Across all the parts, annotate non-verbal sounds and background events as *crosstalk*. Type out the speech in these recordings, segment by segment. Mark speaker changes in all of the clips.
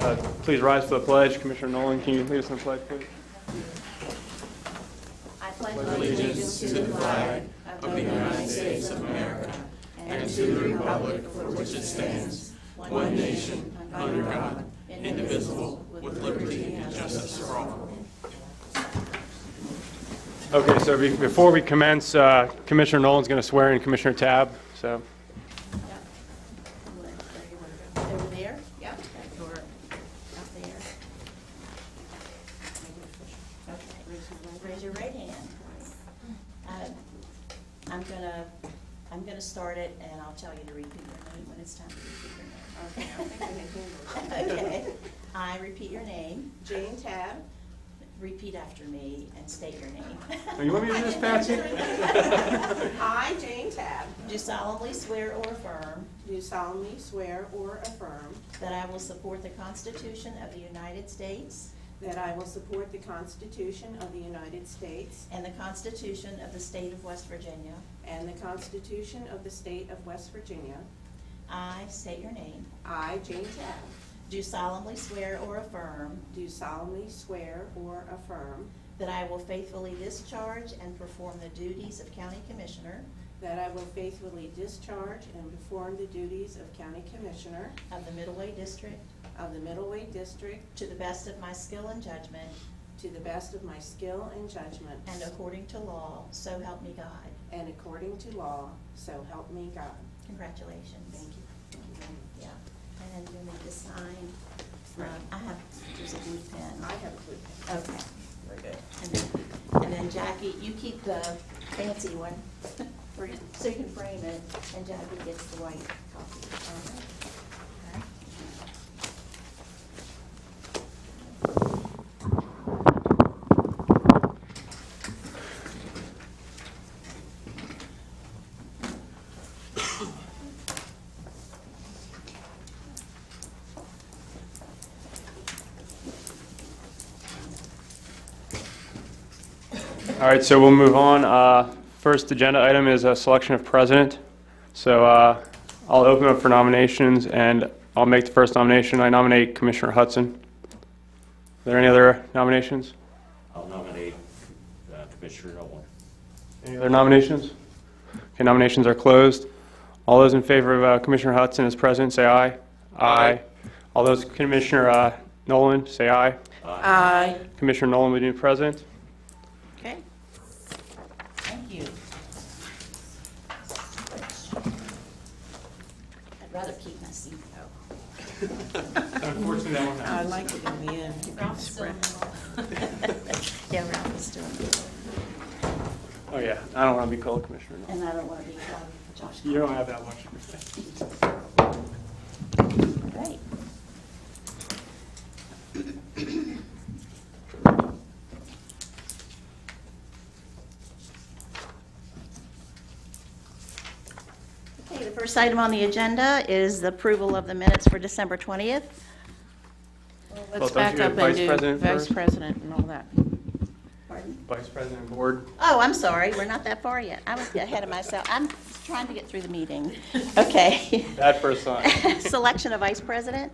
Speaker 1: Uh, Please rise for the pledge. Commissioner Nolan, can you lead us in the pledge, please? Okay, so be- before we commence, uh, Commissioner Nolan's going to swear in Commissioner Tab, so.
Speaker 2: Yep. Over there, yep, that door, up there. Okay, Raise your right hand. Uh, I'm gonna, I'm gonna start it, and I'll tell you to repeat your name when it's time to repeat your name. *laughs* Okay, I repeat your name. Jane Tab. Repeat after me and state your name.
Speaker 1: Oh, You want me to do this, Patsy?
Speaker 3: I, Jane Tabb,
Speaker 2: *laughs* Do solemnly swear or affirm
Speaker 3: do solemnly swear or affirm
Speaker 2: that I will support the Constitution of the United States
Speaker 3: that I will support the Constitution of the United States
Speaker 2: and the Constitution of the State of West Virginia.
Speaker 3: and the Constitution of the State of West Virginia.
Speaker 2: I state your name.
Speaker 3: I, Jane Tabb,
Speaker 2: Do solemnly swear or affirm
Speaker 3: do solemnly swear or affirm
Speaker 2: that I will faithfully discharge and perform the duties of County Commissioner
Speaker 3: that I will faithfully discharge and perform the duties of County Commissioner
Speaker 2: of the Middleway District
Speaker 3: of the Middleweight District
Speaker 2: to the best of my skill and judgment
Speaker 3: to the best of my skill and judgment.
Speaker 2: and according to law, so help me God.
Speaker 3: And according to law, so help me God.
Speaker 2: Congratulations.
Speaker 3: Thank you.
Speaker 2: Yeah. And then you need to sign. Um, I have, there's a blue pen.
Speaker 3: I have a clue.
Speaker 2: Okay, we're good. And then- And then Jackie, you keep the fancy one, *laughs* for- so you can frame it, and Jackie gets the white copy.
Speaker 1: All right, so we'll move on. Uh, First agenda item is a selection of president. So uh, I'll open up for nominations, and I'll make the first nomination. I nominate Commissioner Hudson. Are there any other nominations?
Speaker 4: I'll nominate uh, Commissioner Nolan.
Speaker 1: Any other nominations? Okay, nominations are closed. All those in favor of uh, Commissioner Hudson as president, say aye. Aye. All those, Commissioner uh, Nolan, say aye.
Speaker 3: Aye.
Speaker 1: Commissioner Nolan, would you be president?
Speaker 2: Okay. Thank you. I'd rather keep my seat, though.
Speaker 1: Unfortunately, that one
Speaker 3: I like it in the end.
Speaker 2: Ralph's still in *laughs* the- Yeah, Ralph is still in the-
Speaker 1: Oh, yeah, I don't want to be called Commissioner Nolan.
Speaker 2: And I don't want to be um, Josh.
Speaker 1: You don't have that much.
Speaker 2: Great. Okay, the first item on the agenda is the approval of the minutes for December 20th.
Speaker 1: Well,
Speaker 5: Let's
Speaker 1: don't you
Speaker 5: back
Speaker 1: have
Speaker 5: up
Speaker 1: vice
Speaker 5: and do
Speaker 1: president
Speaker 5: vice
Speaker 1: first?
Speaker 5: president and all that.
Speaker 2: Pardon?
Speaker 1: Vice President Board.
Speaker 2: Oh, I'm sorry, we're not that far yet. I was ahead of myself. I'm trying to get through the meeting. Okay. *laughs*
Speaker 1: That first
Speaker 5: *laughs*
Speaker 1: sign.
Speaker 2: Selection of vice president?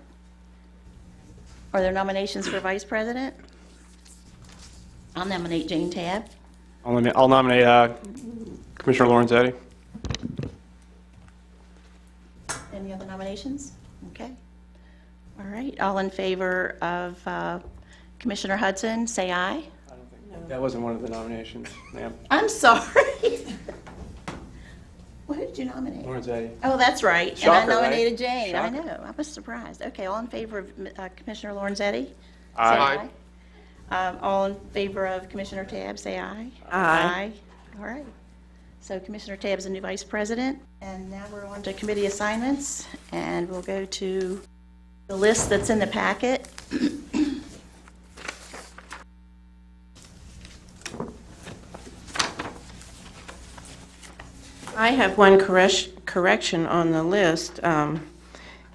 Speaker 2: Are there nominations for vice president? I'll nominate Jane Tab.
Speaker 1: I'll nominate- I'll nominate uh, Commissioner Lorenzetti.
Speaker 2: Any other nominations? Okay. All right, all in favor of uh, Commissioner Hudson, say aye.
Speaker 1: That wasn't one of the nominations, ma'am.
Speaker 2: I'm sorry. *laughs* What did you nominate?
Speaker 1: Lorenzetti.
Speaker 2: Oh, that's right.
Speaker 1: Shocker, right?
Speaker 2: And I nominated Jane. I
Speaker 1: Shocker.
Speaker 2: know, I was surprised. Okay, all in favor of uh, Commissioner Lorenzetti?
Speaker 1: Aye.
Speaker 2: Say aye. Um, All in favor of Commissioner Tabb, say aye.
Speaker 3: Aye.
Speaker 2: All right. So Commissioner Tabb's the new vice president. And now we're on to committee assignments, and we'll go to the list that's in the packet.
Speaker 5: I have one correction, correction on the list. Um,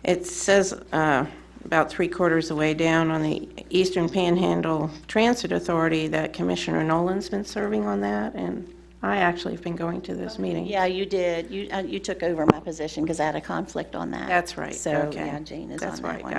Speaker 5: It says uh, about three quarters of the way down on the Eastern Panhandle Transit Authority that Commissioner Nolan's been serving on that, and I actually have been going to those meetings.
Speaker 2: Yeah, you did. You, uh, you took over my position because I had a conflict on that.
Speaker 5: That's right,
Speaker 2: So,
Speaker 5: okay.
Speaker 2: yeah, Jane is on
Speaker 5: That's
Speaker 2: that
Speaker 5: right,
Speaker 2: one.